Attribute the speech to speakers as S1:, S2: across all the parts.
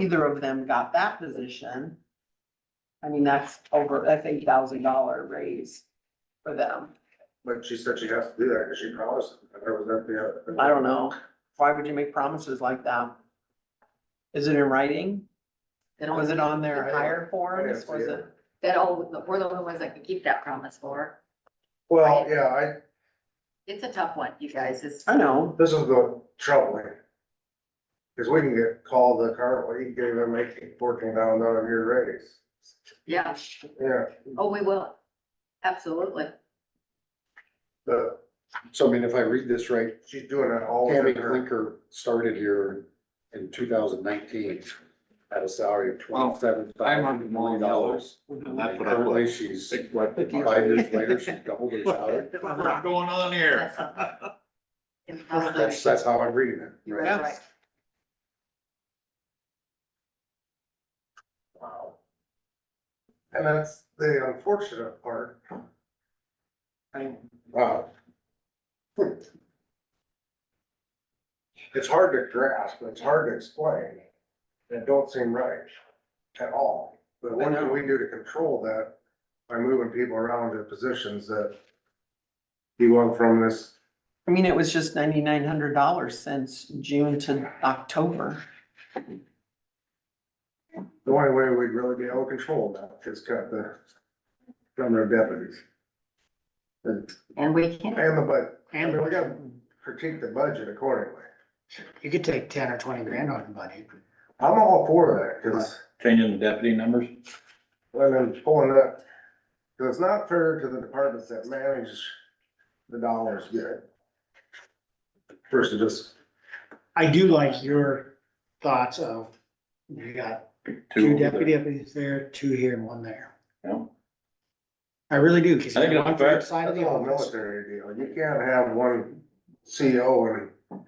S1: either of them got that position. I mean, that's over, that's eight thousand dollar raise for them.
S2: But she said she has to do that because she promised. I was at the.
S1: I don't know. Why would you make promises like that? Is it in writing?
S3: They don't-
S1: Was it on their
S2: I-
S1: hire forms?
S2: I
S1: Was
S2: see it.
S1: it?
S3: That all, we're the only ones that can keep that promise for.
S2: Well, yeah, I,
S3: It's a tough one, you guys. It's,
S1: I know.
S2: this is the trouble. Cause we can get called the car, we can give them eighteen, fourteen thousand dollar a year raise.
S3: yeah.
S2: Yeah,
S3: Oh, we will. Absolutely.
S2: but
S4: So I mean, if I read this right,
S2: she's doing it all.
S4: Tammy
S2: under her-
S4: Clinker started here in two thousand nineteen at a salary of twenty-seven thousand million dollars.
S5: That's what I
S4: Currently,
S5: put.
S4: she's, what, five years later, she's doubled her salary.
S5: What's going on here?
S3: It's probably-
S4: That's, that's how I'm reading it.
S3: You're
S4: right?
S3: right.
S2: Wow. And that's the unfortunate part.
S1: I-
S2: Wow. It's hard to grasp, it's hard to explain, and it don't seem right at all. But what can we do to control that by moving people around to positions that you want from this,
S1: I mean, it was just ninety-nine hundred dollars since June to October.
S2: the only way we'd really be able to control that is cut the number of deputies. And
S3: And we can.
S2: and the budget, I
S6: And
S2: mean, we gotta critique the budget accordingly.
S6: you could take ten or twenty grand on the budget.
S2: I'm all for that, cause
S5: Changing the deputy numbers?
S2: I've been pulling up, cause it's not fair to the departments that manage the dollars good. Versus just,
S6: I do like your thoughts of, you got two deputy deputies there, two here and one there.
S5: Yeah.
S6: I really do, cause
S5: I think
S6: you
S5: it's
S6: want the
S5: fair.
S6: side of
S2: that's
S6: the
S2: all
S6: office.
S2: military deal, you can't have one CO and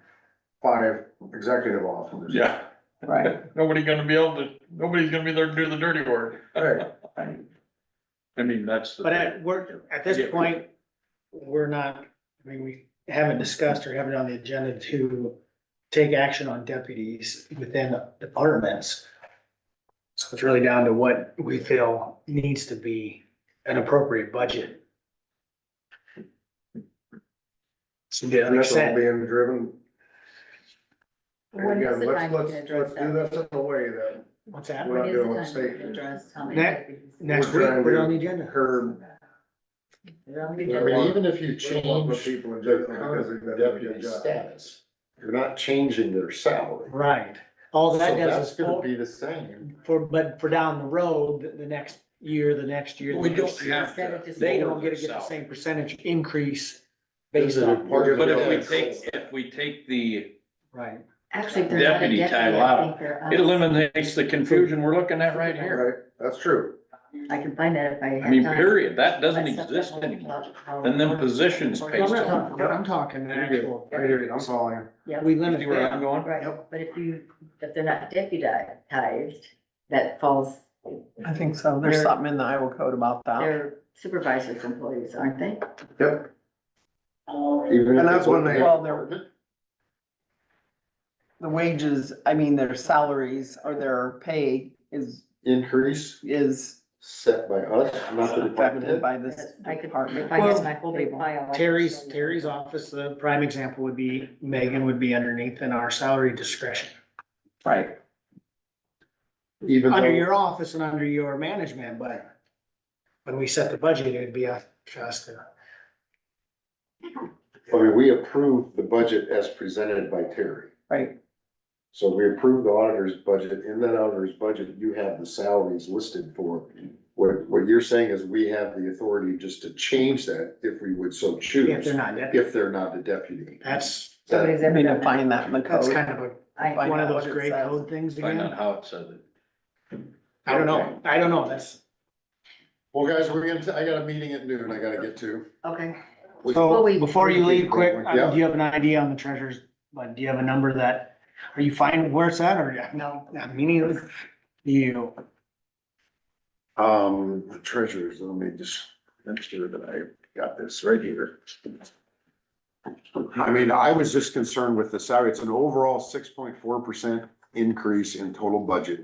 S2: five executive officers.
S5: Yeah.
S1: Right.
S5: Nobody gonna be able to, nobody's gonna be there to do the dirty work.
S2: Right.
S5: I mean, that's. the-
S6: But at, we're, at this point, we're not, I mean, we haven't discussed or haven't on the agenda to take action on deputies within departments. So it's really down to what we feel needs to be an appropriate budget. So, yeah,
S2: And
S6: like I
S2: that's all
S6: said,
S2: being driven,
S3: When
S2: and
S3: is
S2: again,
S3: the
S2: let's,
S3: time you
S2: let's,
S3: can address
S2: let's do
S3: that?
S2: this in a way that
S6: what's that?
S2: we're
S3: When
S2: not
S3: is the
S2: doing
S3: time you
S2: state
S3: can address how many
S6: Next-
S3: deputies?
S6: Next
S2: We're
S6: week,
S2: trying
S6: put it
S2: to
S6: on the agenda.
S2: curb.
S6: Put it on the
S2: I
S4: I
S6: agenda.
S4: mean, even if you
S2: We won't put
S4: change
S2: people in
S4: the
S2: jail because they've
S4: current
S2: done a good
S4: deputy
S2: job.
S4: status, you're not changing their salary.
S6: Right, all
S4: So
S6: that does
S4: that's
S6: is,
S4: gonna
S6: for,
S4: be the same.
S6: but for down the road, the- the next year, the next year.
S5: We
S6: the
S5: don't
S6: next year.
S5: have
S3: Instead of
S5: to.
S3: just-
S6: they
S5: lower
S6: don't get to
S5: their
S6: get the
S5: salary.
S6: same percentage increase
S4: This
S6: based
S4: is a
S6: on,
S4: part of
S5: But if
S4: the-
S5: we take, if we take the,
S6: right,
S3: Actually, if they're not a
S5: Deputy
S3: deputy,
S5: title
S3: I
S5: out.
S3: think they're, um,
S5: it eliminates the confusion we're looking at right here.
S2: Right, that's true.
S3: I can find that if I have time.
S5: I mean, period, that doesn't
S3: That's something
S5: exist
S3: we'll
S5: anymore.
S3: talk about.
S5: And then positions
S6: I'm
S5: based
S6: not
S5: on.
S6: talking, I'm talking the
S2: You're good.
S6: actual.
S2: I hear you, I'm following.
S3: Yeah.
S6: We
S5: You
S6: limit
S5: see where I'm
S6: that,
S5: going?
S3: Right, but if you, if they're not deputized, that falls,
S1: I think so. There's
S3: They're-
S1: something in the Iowa code about that.
S3: they're supervisors employees, aren't they?
S2: Yep,
S4: Even if
S2: And
S4: it
S2: that's when
S4: wasn't
S2: they-
S1: Well, they're- The wages, I mean, their salaries or their pay is,
S4: Increase
S1: is
S4: set by us, not the department
S1: affected
S4: head.
S1: by this
S3: I could, if
S1: department.
S3: I had
S6: Well,
S3: my whole big file. I could
S6: Terry's,
S3: show you.
S6: Terry's office, the prime example would be, Megan would be underneath in our salary discretion.
S1: Right.
S4: Even
S6: Under
S4: though,
S6: your office and under your management, but when we set the budget, it'd be up to us to,
S4: I mean, we approve the budget as presented by Terry.
S1: Right.
S4: So we approve the auditor's budget. In that auditor's budget, you have the salaries listed for. What, what you're saying is we have the authority just to change that if we would so
S6: if
S4: choose,
S6: they're not deputy.
S4: if they're not a deputy.
S6: That's,
S3: Somebody's
S1: I
S3: ever
S1: mean, to
S3: done that.
S1: find that in the
S6: that's
S1: code.
S6: kind of a,
S3: I,
S1: Find
S6: one of
S1: out
S6: those
S1: what it
S6: gray
S1: says.
S6: code things
S5: Find out
S6: again.
S5: how it says it.
S6: I don't know, I don't know, that's.
S4: Well, guys, we're gonna, I got a meeting at noon I gotta get to.
S3: okay, Well,
S6: So,
S3: we-
S6: before you leave, quick,
S4: Yeah.
S6: uh, do you have an idea on the treasures, but do you have a number that, are you fine with where it's at, or,
S3: no,
S6: I mean, it- you,
S4: Um, the treasures, let me just make sure that I got this right here. I mean, I was just concerned with the salary. It's an overall six point four percent increase in total budget.